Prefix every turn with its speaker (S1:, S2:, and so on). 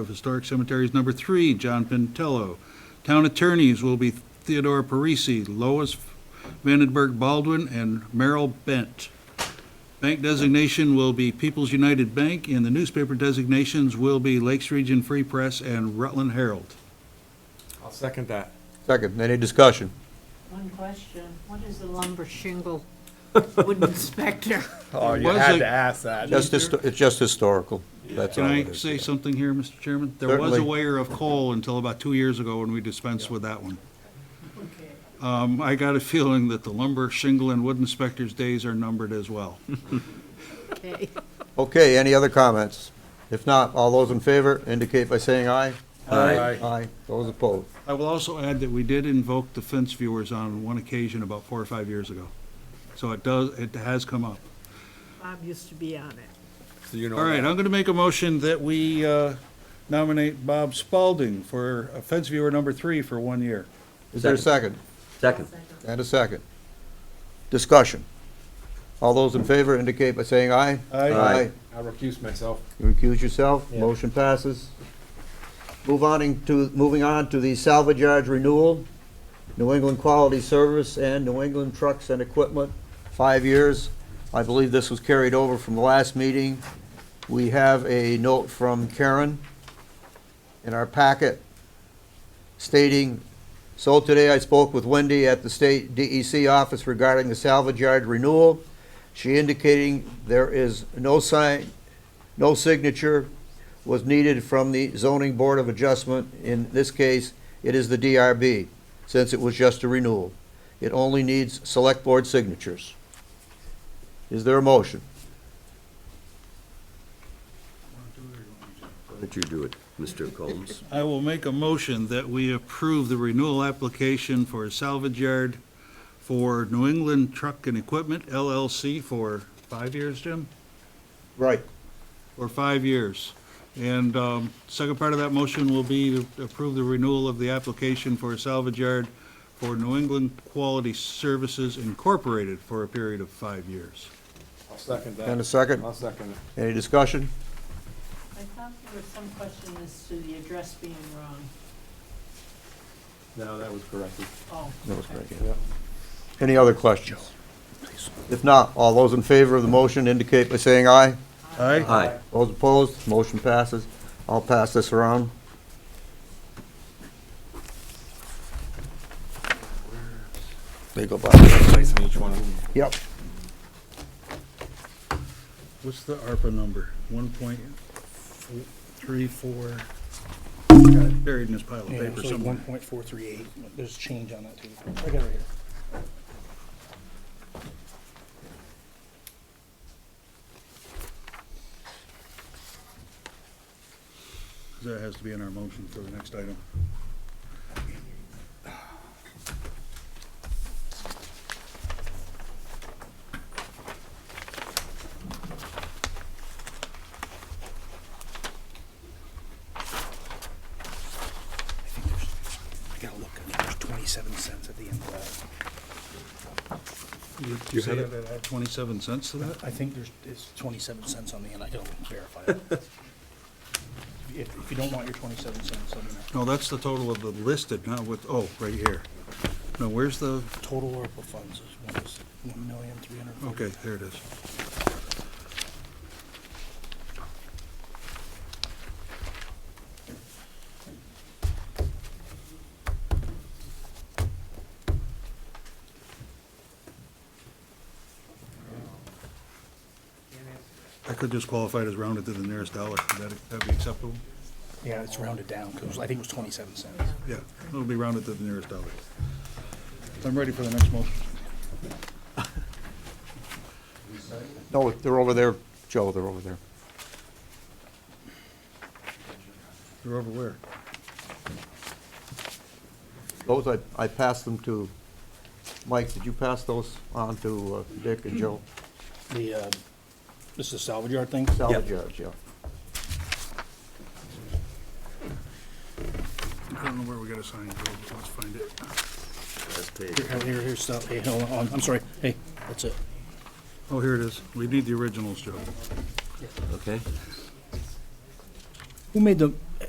S1: of Historic Cemeteries number three, John Pintello. Town attorneys will be Theodore Parisi, Lois Vandenberg Baldwin, and Merrill Bent. Bank designation will be People's United Bank, and the newspaper designations will be Lakes Region Free Press and Rutland Herald.
S2: I'll second that.
S3: Second, any discussion?
S4: One question, what is a lumber shingle wooden inspector?
S5: Oh, you
S1: was
S5: had
S1: a-
S5: to ask that.
S3: Just, histo- it's just historical, that's
S1: Can
S3: all it
S1: I
S3: is.
S1: say something here, Mr. Chairman? There was a
S3: Certainly.
S1: layer of coal until about two years ago when we dispensed with that one. Um, I got a feeling that the lumber, shingle, and wood inspector's days are numbered as well.
S4: Okay.
S3: Okay, any other comments? If not, all those in favor indicate by saying aye.
S5: Aye.
S3: Aye, those opposed.
S1: I will also add that we did invoke the fence viewers on one occasion about four or five years ago. So it does, it has come up.
S4: Bob used to be on it.
S2: So you know
S1: All right,
S2: that.
S1: I'm going to make a motion that we uh, nominate Bob Spalding for uh, fence viewer number three for one year.
S3: Is there a second?
S6: Second.
S3: And a second. Discussion. All those in favor indicate by saying aye.
S1: Aye.
S2: I'll recuse myself.
S3: You recuse yourself, motion passes. Move on in- to, moving on to the salvage yard renewal, New England Quality Service and New England Trucks and Equipment, five years. I believe this was carried over from the last meeting. We have a note from Karen in our packet stating, "So today I spoke with Wendy at the state DEC office regarding the salvage yard renewal. She indicating there is no sign, no signature was needed from the zoning board of adjustment. In this case, it is the DRB, since it was just a renewal. It only needs select board signatures. Is there a motion?
S6: Why don't you do it, Mr. Combs?
S1: I will make a motion that we approve the renewal application for a salvage yard for New England Truck and Equipment LLC for five years, Jim?
S3: Right.
S1: Or five years. And um, second part of that motion will be to approve the renewal of the application for a salvage yard for New England Quality Services Incorporated for a period of five years.
S2: I'll second that.
S3: And a second?
S2: I'll second it.
S3: Any discussion?
S4: I thought there was some question as to the address being wrong.
S2: No, that was corrected.
S4: Oh.
S3: No, it's
S4: okay.
S3: right
S2: Yeah.
S3: here. Any other questions? If not, all those in favor of the motion indicate by saying aye.
S1: Aye.
S6: Aye.
S3: Those opposed, motion passes. I'll pass this around. There you go, Bob.
S2: Place in each one.
S3: Yep.
S1: What's the ARPA number? One point three four, buried in this pile of
S7: Yeah,
S1: paper
S7: it's like
S1: somewhere.
S7: one point four three eight, there's change on that too. I got it right here.
S1: That has to be in our motion for the next item.
S7: I think there's, I gotta look, I think there's twenty-seven cents at the end of that.
S1: You- You said it add 27 cents to that?
S7: I think there's, it's twenty-seven cents on the end, I gotta verify that. If, if you don't want your twenty-seven cents, let me
S1: No,
S7: know.
S1: that's the total of the listed, not with, oh, right here. No, where's the,
S7: Total ARPA funds is one, is one million, three hundred.
S1: okay, there it is. I could just qualify it as rounded to the nearest dollar. Would that that'd be acceptable?
S7: Yeah, it's rounded down, cause I think it was twenty-seven cents.
S1: Yeah, it'll be rounded to the nearest dollar. I'm ready for the next motion.
S3: No, they're over there, Joe, they're over there.
S1: They're over where?
S3: Those, I, I passed them to, Mike, did you pass those on to uh, Dick and Joe?
S7: The, uh, this is the salvage yard thing?
S3: Salvage yards, yeah.
S1: I don't know where we gotta sign, Joe, but let's find it.
S6: Last page.
S7: Here, here, here, stop, hey, hold on, I'm sorry, hey, that's it.
S1: Oh, here it is. We need the originals, Joe.
S6: Okay.
S7: Who made the,